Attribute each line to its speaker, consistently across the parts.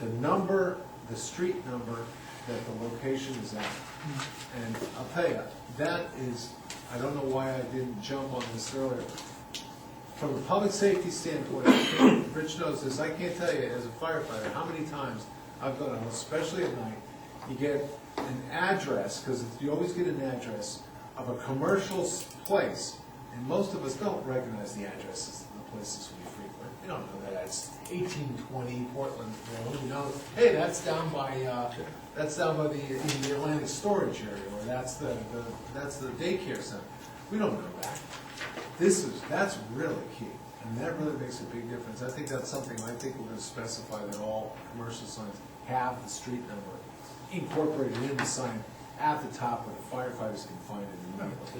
Speaker 1: the number, the street number that the location is at. And I'll tell you, that is, I don't know why I didn't jump on this earlier. From a public safety standpoint, Rich knows this, I can't tell you as a firefighter, how many times I've gone, out, especially at night, you get an address, because you always get an address of a commercial s- place, and most of us don't recognize the addresses of the places we frequent. We don't know that it's eighteen twenty Portland Road, you know, hey, that's down by, uh, that's down by the, in the Atlantic Storage Area, or that's the, the, that's the daycare center. We don't know that. This is, that's really key, and that really makes a big difference. I think that's something, I think we're gonna specify that all commercial signs have the street number incorporated in the sign at the top where the firefighters can find it.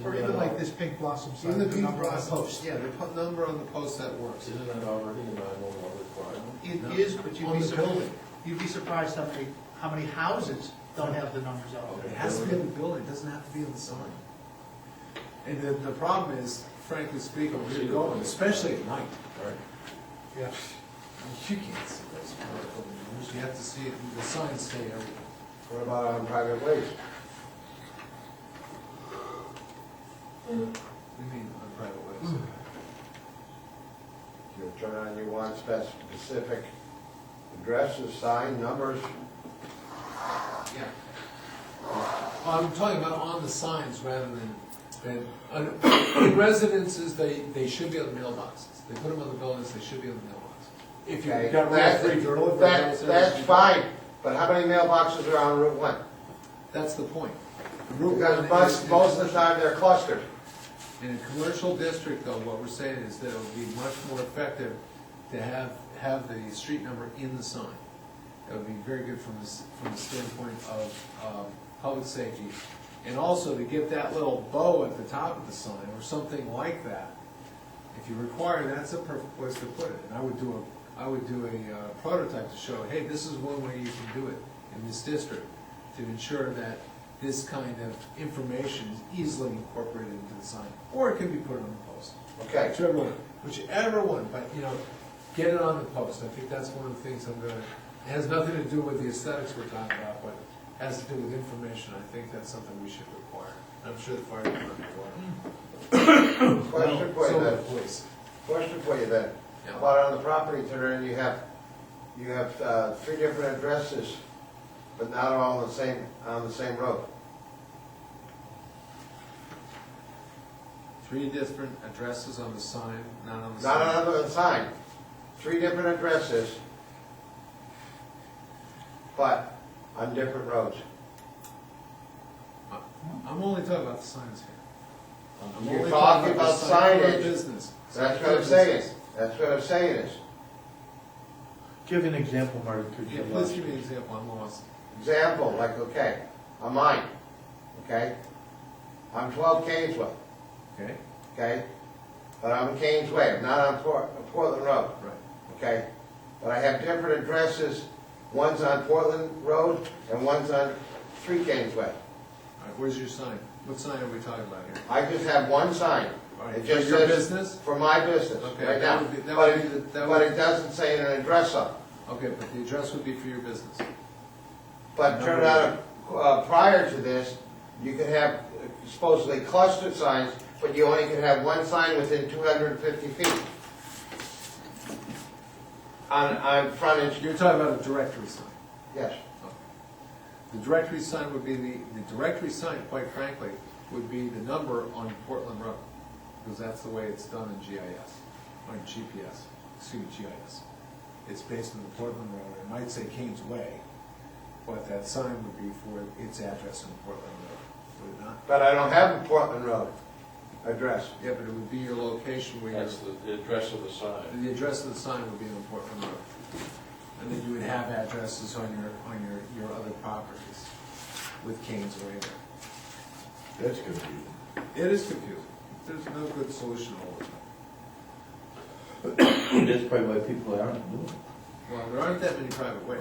Speaker 2: Or
Speaker 1: immediately.
Speaker 2: even like this pink blossom sign.
Speaker 1: Even the
Speaker 2: with
Speaker 1: people
Speaker 2: number on
Speaker 1: on
Speaker 2: it.
Speaker 1: the post, yeah, the po- number on the post, that works.
Speaker 3: Isn't that already a nine-one-one requirement?
Speaker 1: No.
Speaker 2: It is, but you'd
Speaker 1: On
Speaker 2: be
Speaker 1: the
Speaker 2: surprised,
Speaker 1: building.
Speaker 2: you'd be surprised how many, how many houses don't have the numbers on
Speaker 1: It
Speaker 2: it.
Speaker 1: has to be on the building, it doesn't have to be on the sign. And the, the problem is, frankly speaking, where you're going, especially at night,
Speaker 3: Right.
Speaker 2: Yeah.
Speaker 1: you can't see those vertical numbers, you have to see it, the signs stay everywhere.
Speaker 3: What about on private ways?
Speaker 1: We mean on private ways.
Speaker 4: Hmm. You turn on, you want spec- specific addresses, sign numbers,
Speaker 1: Yeah. I'm talking about on the signs rather than, than, uh, in residences, they, they should be on the mailboxes. They put them on the buildings, they should be on the mailboxes. If
Speaker 4: okay?
Speaker 1: you've got
Speaker 4: That's-
Speaker 1: rent-free delivery.
Speaker 4: that- That's fine, but how many mailboxes are on Route One?
Speaker 1: That's the point. Route
Speaker 4: Because
Speaker 1: one
Speaker 4: most,
Speaker 1: is-
Speaker 4: most of the time they're clustered.
Speaker 1: In a commercial district, though, what we're saying is that it would be much more effective to have, have the street number in the sign. That would be very good from the, s- from the standpoint of, um, public safety. And also to get that little bow at the top of the sign, or something like that. If you require, that's a perfect place to put it, and I would do a, I would do a uh, prototype to show, hey, this is one way you can do it in this district, to ensure that this kind of information is easily incorporated into the sign, or it can be put on the post.
Speaker 4: Okay,
Speaker 1: Whichever one, whichever one, but, you know, get it on the post, I think that's one of the things I'm gonna, it has nothing to do with the aesthetics we're talking about, but has to do with information, I think that's something we should require. I'm sure the fire department will.
Speaker 4: question for you
Speaker 1: So will
Speaker 4: then,
Speaker 1: the police.
Speaker 4: question for you then.
Speaker 1: Yeah.
Speaker 4: About on the property turn, in, you have, you have uh, three different addresses, but not all on the same, on the same road.
Speaker 1: Three different addresses on the sign, not on the sign.
Speaker 4: Not on the sign, three different addresses, but on different roads.
Speaker 1: I'm only talking about the signs here. I'm
Speaker 4: You're
Speaker 1: only
Speaker 4: talking about
Speaker 1: the sign for
Speaker 4: signage.
Speaker 1: Business.
Speaker 4: That's what I'm saying, that's what I'm saying is,
Speaker 5: Give an example, Marty, could
Speaker 1: Yeah,
Speaker 5: you?
Speaker 1: please give me an example, I'm lost.
Speaker 4: example, like, okay, I'm mine, okay? I'm twelve Kingsway,
Speaker 1: Okay.
Speaker 4: okay? But I'm in Kingsway, I'm not on Port, Portland Road,
Speaker 1: Right.
Speaker 4: okay? But I have different addresses, one's on Portland Road and one's on Three Kingsway.
Speaker 1: All right, where's your sign? What sign are we talking about here?
Speaker 4: I just have one sign.
Speaker 1: All right,
Speaker 4: It just
Speaker 1: for your
Speaker 4: says-
Speaker 1: business?
Speaker 4: For my business,
Speaker 1: Okay,
Speaker 4: right
Speaker 1: that
Speaker 4: now.
Speaker 1: would be- that
Speaker 4: But
Speaker 1: would be the-
Speaker 4: it,
Speaker 1: that
Speaker 4: but
Speaker 1: would-
Speaker 4: it doesn't say an address up.
Speaker 1: Okay, but the address would be for your business.
Speaker 4: But turn out, uh, prior to this, you could have supposedly clustered signs, but you only could have one sign within two hundred and fifty feet. On, on frontage,
Speaker 1: You're talking about a directory sign.
Speaker 4: yes.
Speaker 1: The directory sign would be the, the directory sign, quite frankly, would be the number on Portland Road, because that's the way it's done in GIS, on GPS, excuse me, GIS. It's based on the Portland Road, it might say Kane's Way, but that sign would be for its address on Portland Road, would it not?
Speaker 4: But I don't have a Portland Road address.
Speaker 1: Yeah, but it would be your location where
Speaker 3: That's
Speaker 1: your,
Speaker 3: the the address of the sign.
Speaker 1: the address of the sign would be on Portland Road. And then you would have addresses on your, on your, your other properties with Kane's Way there.
Speaker 5: That's confusing.
Speaker 1: It is confusing. There's no good solution all the time.
Speaker 5: That's probably why people aren't doing it.
Speaker 1: Well, there aren't that many private ways.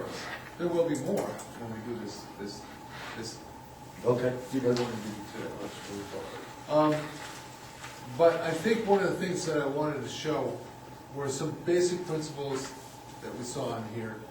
Speaker 1: There will be more when we do this, this, this,
Speaker 5: Okay.
Speaker 1: you don't want to do too. Um, but I think one of the things that I wanted to show were some basic principles that we saw in here